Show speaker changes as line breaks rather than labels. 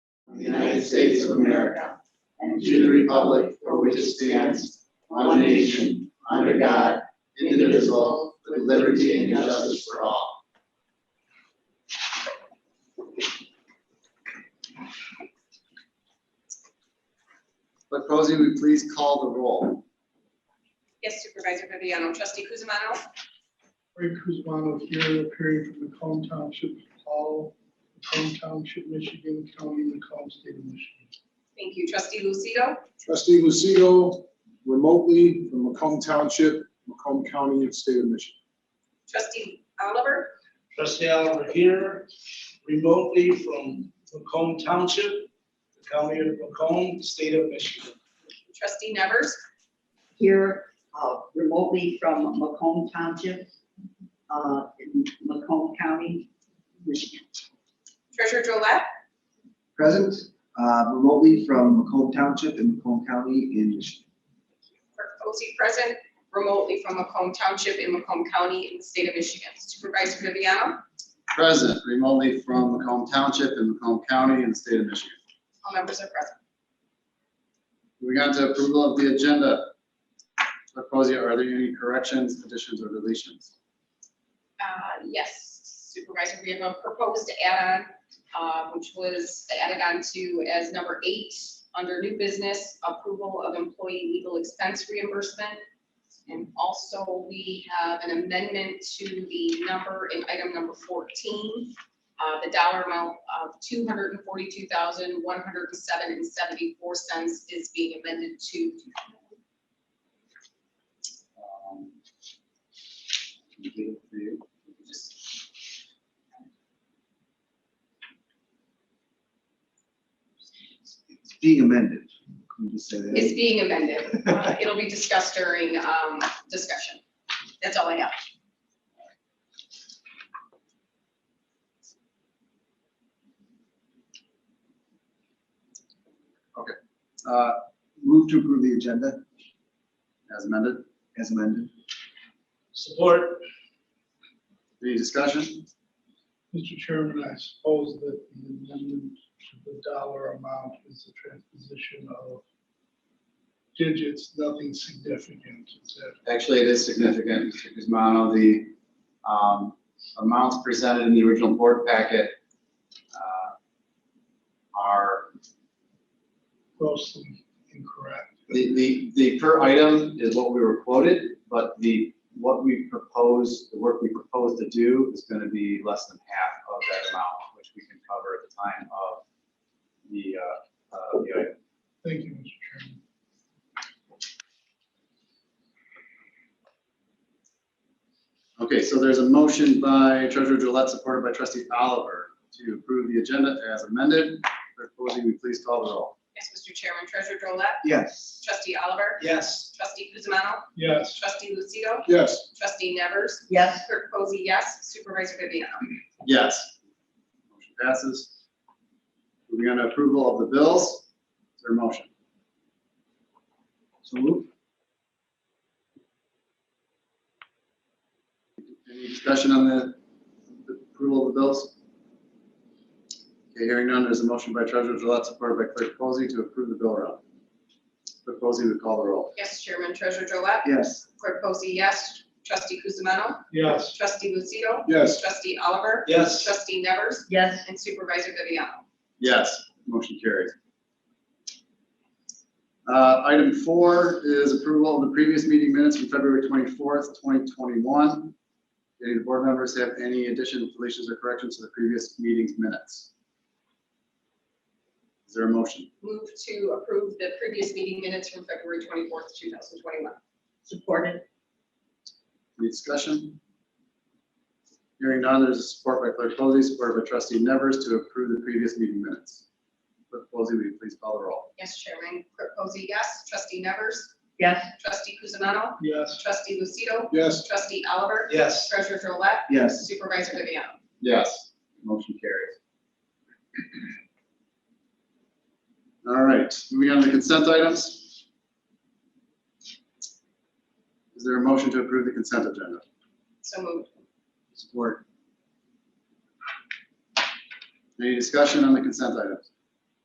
the United States of America and to the republic for which it stands, one nation, under God, indivisible, with liberty and justice for all. Clerk Posey, will you please call the roll?
Yes, Supervisor Viviano. Trustee Kuzma.
Frank Cusmano here, appearing from Macomb Township, Paul, Macomb Township, Michigan, County, Macomb, State of Michigan.
Thank you. Trustee Lucido.
Trustee Lucido, remotely from Macomb Township, Macomb County, and State of Michigan.
Trustee Oliver.
Trustee Oliver here, remotely from Macomb Township, the county of Macomb, the state of Michigan.
Trustee Nevers.
here uh, remotely from Macomb Township, uh, in Macomb County, Michigan.
Treasurer Drollet.
Present uh, remotely from Macomb Township in Macomb County in Michigan.
Clerk Posey present remotely from Macomb Township in Macomb County in the state of Michigan. Supervisor Viviano.
Present remotely from Macomb Township in Macomb County and the state of Michigan.
All members are present.
Moving on to approval of the agenda. Clerk Posey, are there any corrections, additions, or deletions?
Uh, Yes, Supervisor, we have a proposed add-on, uh, which was added on to as number eight, under new business, approval of employee legal expense reimbursement. And also, we have an amendment to the number in item number 14, uh, the dollar amount of $242,107.74 is being amended to
Um, I'll give it to you.
It's being amended. Can we just say
It's
that?
being amended. Uh, It'll be discussed during um, discussion. That's all I have.
Uh,
Move to approve the agenda
As amended,
as amended.
Support,
any discussion?
Mr. Chairman, I suppose that the amendment to the dollar amount is a transposition of digits, nothing significant. Is that
Actually, it is significant, Mr. Guzmano, the um, amounts presented in the original board packet uh, are,
grossly incorrect?
the, the, the per item is what we were quoted, but the, what we propose, the work we propose to do is going to be less than half of that amount, which we can cover at the time of the, uh, uh, the item.
Thank you, Mr. Chairman.
Okay, so there's a motion by Treasurer Gillette, supported by Trustee Oliver, to approve the agenda as amended. Clerk Posey, will you please call the roll?
Yes, Mr. Chairman, Treasurer Drollet,
Yes.
Trustee Oliver,
yes.
Trustee Kuzma,
Yes.
Trustee Lucido,
Yes.
Trustee Nevers,
Yes,
Clerk Posey, yes, Supervisor Viviano.
Yes. Motion passes. Moving on to approval of the bills. Is there a motion? So move. Any discussion on the the approval of the bills? Okay, hearing none, there's a motion by Treasurer Gillette, supported by Clerk Posey, to approve the bill round. Clerk Posey would call the roll.
Yes, Chairman, Treasurer Drollet,
Yes.
Clerk Posey, yes, Trustee Kuzma,
Yes.
Trustee Lucido,
Yes.
Trustee Oliver,
Yes.
Trustee Nevers,
yes,
and Supervisor Viviano.
Yes, motion carries. Uh, Item four is approval of the previous meeting minutes from February 24th, 2021. Any of the board members have any additions, deletions, or corrections to the previous meeting's minutes? Is there a motion?
Move to approve the previous meeting minutes from February 24th, 2021.
supported,
Any discussion? Hearing none, there's a support by Clerk Posey, supported by Trustee Nevers to approve the previous meeting minutes. Clerk Posey, will you please call the roll?
Yes, Chairman, Clerk Posey, yes, Trustee Nevers,
yes,
Trustee Kuzma,
Yes.
Trustee Lucido,
Yes.
Trustee Oliver,
Yes.
Treasurer Drollet,
Yes.
Supervisor Viviano.
Yes. Motion carries. All right, moving on to consent items. Is there a motion to approve the consent agenda?
So moved.
Support. Any discussion on the consent items?